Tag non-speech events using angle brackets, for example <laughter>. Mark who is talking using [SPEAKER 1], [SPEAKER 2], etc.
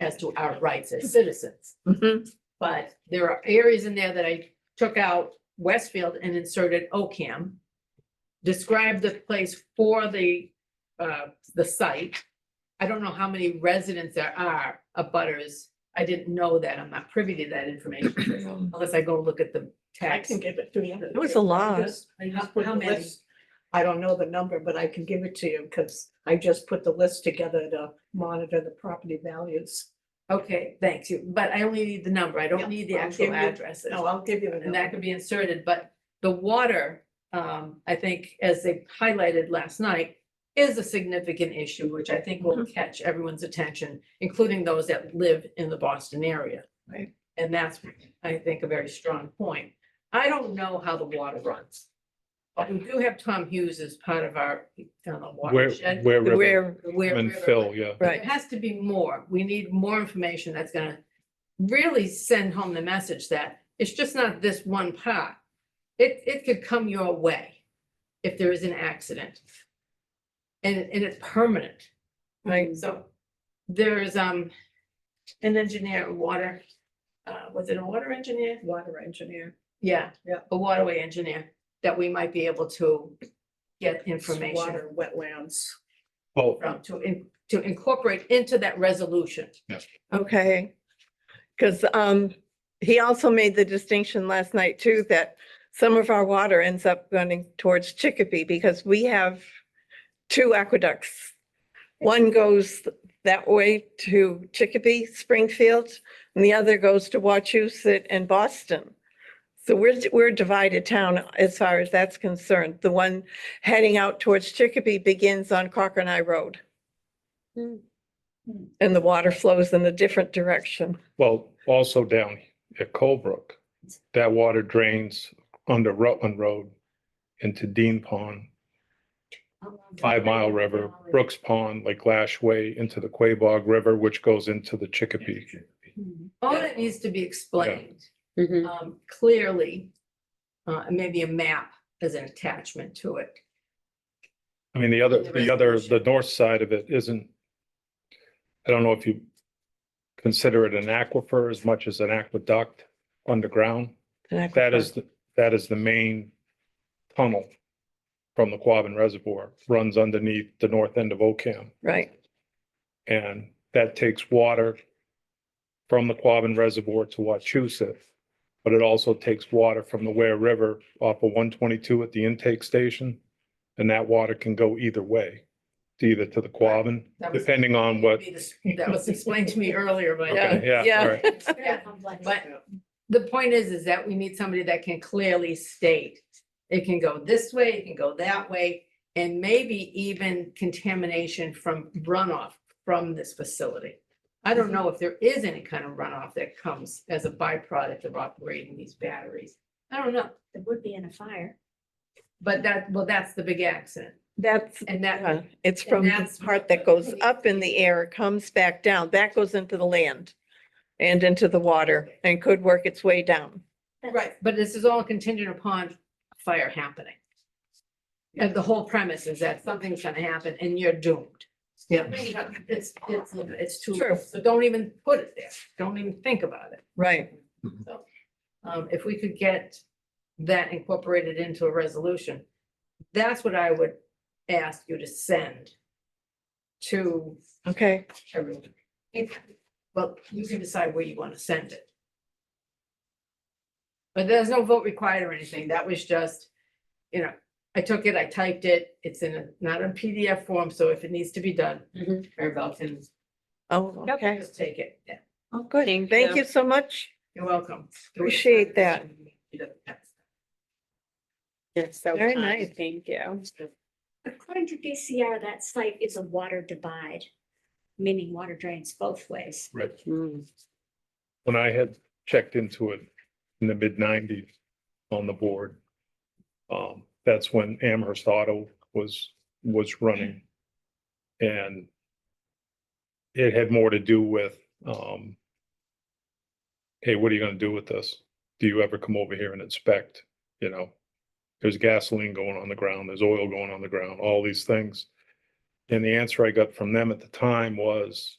[SPEAKER 1] as to our rights
[SPEAKER 2] <laughs>
[SPEAKER 1] as citizens.
[SPEAKER 3] Mm-hmm.
[SPEAKER 1] But there are areas in there that I took out Westfield and inserted OCAM. Described the place for the, uh, the site. I don't know how many residents there are of butters. I didn't know that. I'm not privy to that
[SPEAKER 2] <clears throat>
[SPEAKER 1] information unless I go look at the
[SPEAKER 2] I
[SPEAKER 1] text.
[SPEAKER 2] can give it to you.
[SPEAKER 3] It was a lot.
[SPEAKER 2] I just- I
[SPEAKER 1] How-
[SPEAKER 2] just put
[SPEAKER 1] how
[SPEAKER 2] the
[SPEAKER 1] many?
[SPEAKER 2] list- I don't know the number, but I can give it to you because I just put the list together to monitor the property values.
[SPEAKER 1] Okay, thanks you, but I only need the number. I
[SPEAKER 2] Yeah,
[SPEAKER 1] don't need the
[SPEAKER 2] I'll
[SPEAKER 1] actual
[SPEAKER 2] give you-
[SPEAKER 1] addresses.
[SPEAKER 2] No, Oh, I'll give you the
[SPEAKER 1] And that
[SPEAKER 2] number.
[SPEAKER 1] could be inserted, but the water, um, I think, as they highlighted last night. Is a significant issue, which I think will catch everyone's attention, including those that live in the Boston area.
[SPEAKER 3] Right.
[SPEAKER 1] And that's, I think, a very strong point. I don't know how the water runs. But we do have Tom Hughes as part of our, uh,
[SPEAKER 4] Where,
[SPEAKER 1] watershed.
[SPEAKER 4] where River
[SPEAKER 3] Where,
[SPEAKER 1] Where
[SPEAKER 4] and
[SPEAKER 1] River-
[SPEAKER 4] Phil, yeah.
[SPEAKER 1] there
[SPEAKER 3] right,
[SPEAKER 1] has to be more. We need more information that's gonna really send home the message that it's just not this one part. It, it could come your way if there is an accident. And, and it's permanent.
[SPEAKER 2] Mm.
[SPEAKER 3] right.
[SPEAKER 1] So there's, um, an engineer, a water, uh, was it a water engineer?
[SPEAKER 2] Water engineer.
[SPEAKER 1] Yeah.
[SPEAKER 2] Yeah.
[SPEAKER 1] A waterway engineer that we might be able to get information
[SPEAKER 2] Water, wetlands.
[SPEAKER 4] Oh,
[SPEAKER 1] from, to, in- to incorporate into that resolution.
[SPEAKER 3] Okay. Because um, he also made the distinction last night too, that some of our water ends up going towards Chicopee because we have two aqueducts. One goes that way to Chicopee, Springfield, and the other goes to Wachusett and Boston. So we're, we're a divided town as far as that's concerned. The one heading out towards Chicopee begins on Cochran Eye Road.
[SPEAKER 5] Hmm.
[SPEAKER 2] Hmm.
[SPEAKER 3] And the water flows in a different direction.
[SPEAKER 4] well, also down at Colebrook, that water drains under Rutland Road into Dean Pond, Five Mile River, Brooks Pond, Lake Lashway, into the Quabog River, which goes into the Chicopee.
[SPEAKER 2] Hmm.
[SPEAKER 1] All that needs to be explained
[SPEAKER 5] Mhm.
[SPEAKER 1] um, clearly, uh, and maybe a map as an attachment to it.
[SPEAKER 4] I mean, the other,
[SPEAKER 1] The
[SPEAKER 4] the other, the
[SPEAKER 1] resolution.
[SPEAKER 4] north side of it isn't, I don't know if you consider it an aquifer as much as an aqueduct underground. That is, the- that is the main tunnel from the Quabbin Reservoir, runs underneath the north end of Ocam.
[SPEAKER 3] Right,
[SPEAKER 4] And that takes water from the Quabbin Reservoir to Wachusett. But it also takes water from the Ware River off of one twenty-two at the intake station. And that water can go either way, to either to the Quabbin,
[SPEAKER 1] That was-
[SPEAKER 4] depending on what,
[SPEAKER 1] That was explained to me earlier, but.
[SPEAKER 3] Yeah.
[SPEAKER 4] okay, yeah, all
[SPEAKER 3] yeah.
[SPEAKER 4] right.
[SPEAKER 1] Yeah, But the point is, is that we need somebody that can clearly state, it can go this way, it can go that way, and maybe even contamination from runoff from this facility. I don't know if there is any kind of runoff that comes as a byproduct of operating these batteries. I don't know,
[SPEAKER 5] It would be in a fire.
[SPEAKER 1] but that, well, that's the big accident,
[SPEAKER 3] That's,
[SPEAKER 1] and that,
[SPEAKER 3] yeah, Uh-huh. it's
[SPEAKER 1] and
[SPEAKER 3] from the
[SPEAKER 1] that's
[SPEAKER 3] part
[SPEAKER 1] what
[SPEAKER 3] that goes
[SPEAKER 1] we-
[SPEAKER 3] up in the air, comes back down, that goes into the land and into the water and could work its way down.
[SPEAKER 5] That's-
[SPEAKER 1] Right, but this is all contingent upon a fire happening. And the whole premise is that something's gonna happen and you're doomed. Yeah. It's, it's, it's too,
[SPEAKER 3] True.
[SPEAKER 1] so don't even put it there, don't even think about it.
[SPEAKER 3] Right,
[SPEAKER 1] Um, if we could get that incorporated into a resolution, that's what I would ask you to send to
[SPEAKER 3] okay,
[SPEAKER 1] everyone. Well, you can decide where you want to send it. But there's no vote required or anything. That was just, you know, I took it, I typed it. It's in a, not in PDF form, so if it needs to be done,
[SPEAKER 5] Mhm.
[SPEAKER 1] Maribel can
[SPEAKER 3] oh, okay.
[SPEAKER 1] just take it. Yeah,
[SPEAKER 3] Oh, good.
[SPEAKER 5] Thank
[SPEAKER 3] Thank
[SPEAKER 5] you.
[SPEAKER 3] you so much.
[SPEAKER 1] You're welcome. Do it.
[SPEAKER 3] Appreciate that.
[SPEAKER 1] You don't have to.
[SPEAKER 5] That's so
[SPEAKER 3] Very
[SPEAKER 5] kind.
[SPEAKER 3] nice.
[SPEAKER 5] Thank you.
[SPEAKER 6] According to DCR, that site is a water divide, meaning water drains both ways.
[SPEAKER 4] Right.
[SPEAKER 5] Mm.
[SPEAKER 4] When I had checked into it in the mid nineties on the board, um, that's when Amherst Auto was, was running. And it had more to do with, um, hey, what are you gonna do with this? Do you ever come over here and inspect, you know? There's gasoline going on the ground, there's oil going on the ground, all these things. And the answer I got from them at the time was,